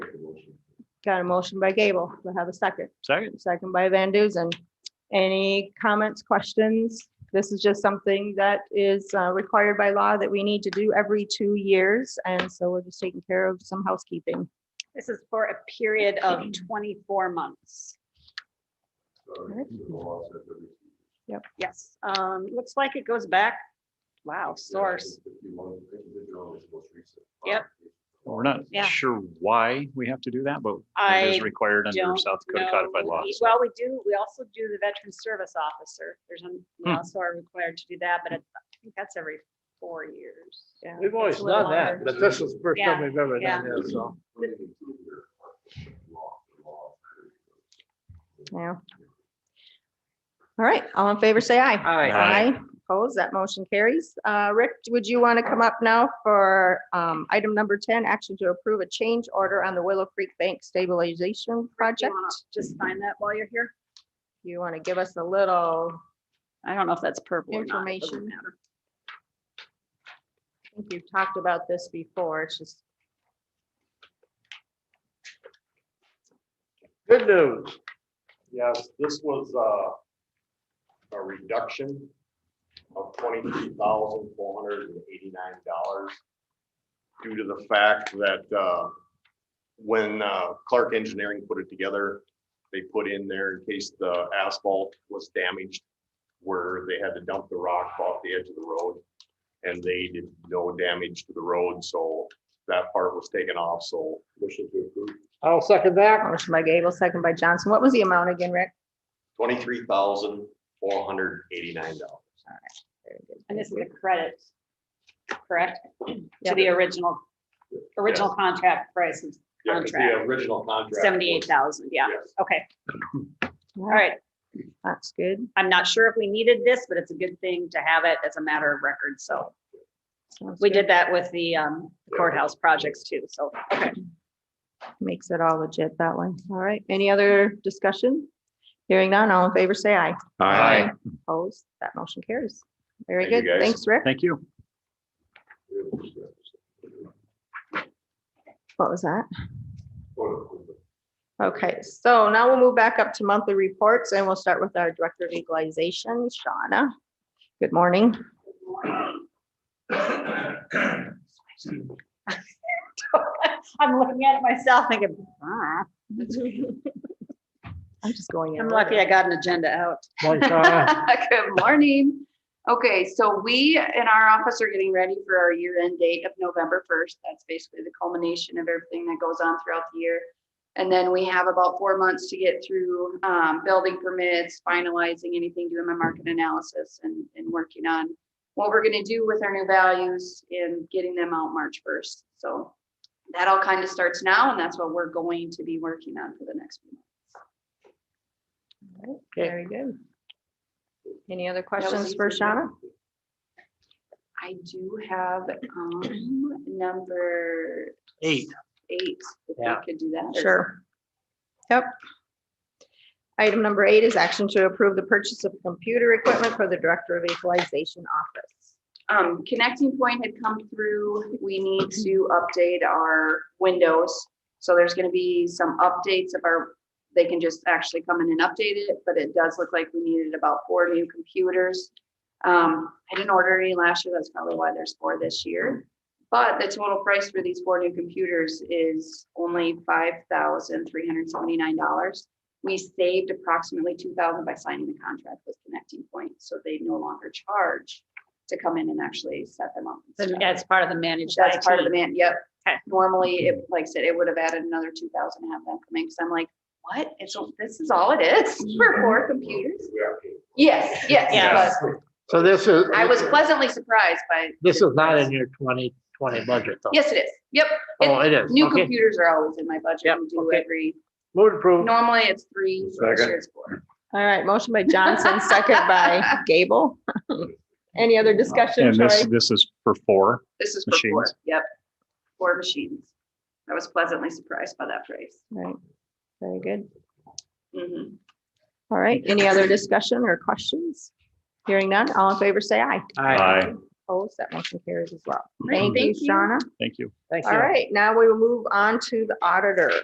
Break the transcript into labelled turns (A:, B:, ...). A: Got a motion by Gable. Do I have a second?
B: Second,
A: Second by Van Duzen. Any comments, questions? This is just something that is uh, required by law that we need to do every two years. And so we're just taking care of some housekeeping.
C: This is for a period of twenty-four months. Yes, um, looks like it goes back, wow, source. Yep.
B: Well, we're not
C: Yeah.
B: sure why we have to do that, but it is
C: I
B: required under
C: don't
B: South Dakota
C: know.
B: codified law. so-
C: Well, we do, we also do the veteran service officer. There's, an- we
B: Hmm.
C: also are required to do that, but it- I think that's every four years. Yeah.
D: We've always
C: It's a little
D: done that,
C: longer.
D: but this is the first time
C: Yeah,
D: we've ever
C: yeah.
D: done that, so.
A: Yeah. All right, all in favor, say aye.
B: Aye.
A: Opposed, that motion carries. Uh, Rick, would you want to come up now for um, item number 10, action to approve a change order on the Willow Creek Bank Stabilization
C: Do you
A: Project?
C: wanna Just find that while you're here.
A: You want to give us a little,
C: I don't know if that's purple or not. It doesn't
A: Information.
C: matter.
A: I think you've talked about this before, it's just
D: Good news.
E: Yes, this was a, a reduction of twenty-three thousand four hundred and eighty-nine dollars due to the fact that, uh, when uh, Clark Engineering put it together, they put in there in case the asphalt was damaged, where they had to dump the rock off the edge of the road, and they did no damage to the road, so that part was taken off, so. Motion to approve.
D: I'll second that.
A: motion by Gable, second by Johnson. What was the amount again, Rick?
E: Twenty-three thousand four hundred eighty-nine dollars.
A: Very good,
C: And this is
A: thank
C: a credit, correct? To
A: Yep.
C: the original, original contract price of
E: Yeah, 'cause the
C: Contract.
E: original contract. was-
C: seventy-eight thousand, yeah,
E: Yes.
C: okay,
A: you.
C: all right.
A: That's good.
C: I'm not sure if we needed this, but it's a good thing to have it as a matter of record, so.
A: Sounds
C: We
A: good.
C: did that with the um, courthouse projects too, so, okay.
A: Makes it all legit that way. All right, any other discussion? Hearing none, all in favor, say aye.
B: Aye.
A: Opposed, that motion carries. Very
E: Thank
A: good.
E: you, guys.
A: Thanks, Rick.
B: Thank you.
A: What was that? Okay, so now we'll move back up to monthly reports and we'll start with our Director of Equalization, Shauna. Good morning.
C: I'm looking at it myself thinking, ah,
A: I'm just going. in
C: I'm lucky I
A: order.
C: got an agenda out.
D: Like, uh,
C: Good morning. Okay, so we in our office are getting ready for our year-end date of November first. That's basically the culmination of everything that goes on throughout the year. And then we have about four months to get through um, building permits, finalizing anything, doing my market analysis and, and working on what we're gonna do with our new values and getting them out March first. So that all kind of starts now, and that's what we're going to be working on for the next few months.
A: Very good. Any other
C: was
A: questions for
C: easy.
A: Shauna?
C: I do have um number
B: Eight.
C: eight, if we
D: Yeah.
C: could do that. or-
A: Sure. Yep. Item number eight is action to approve the purchase of computer equipment for the Director of Equalization Office.
C: Um, Connecting Point had come through. We need to update our windows. So there's gonna be some updates of our, they can just actually come in and update it, but it does look like we needed about four new computers. Um, I didn't order any last year. That's probably why there's four this year. But the total price for these four new computers is only five thousand three hundred seventy-nine dollars. We saved approximately two thousand by signing the contract with Connecting Point, so they no longer charge to come in and actually set them up. and stuff.
F: That's part of the managed
C: That's part of the
F: IT.
C: man, yep.
F: Okay.
C: Normally, it, like I said, it would have added another two thousand to have them come in, because I'm like, what? It's, o- this is all it is for four
A: Mm-hmm.
C: computers? Yes, yes,
F: Yes.
D: So this is,
C: but I was pleasantly surprised by,
D: this is not in your twenty twenty budget though.
C: yes, it is. Yep,
D: Oh, it is.
C: new
D: Okay,
C: computers are always in my budget.
D: Yep,
C: We do
D: okay.
C: every,
D: move to approve.
C: normally it's three, this
E: Second.
C: year it's four.
A: All right, motion by Johnson, second by Gable. Any other discussion,
B: And this,
A: Troy?
B: this is for four.
C: This is for four,
B: Machines.
C: yep. Four machines. I was pleasantly surprised by that price.
A: Right, very good.
C: Mhm.
A: All right, any other discussion or questions? Hearing none, all in favor, say aye.
D: Aye.
A: Opposed, that motion carries as well.
C: Great,
A: Thank you,
C: thank you.
A: Shauna.
B: Thank you.
D: Thank you.
A: All right, now we will move on to the auditor.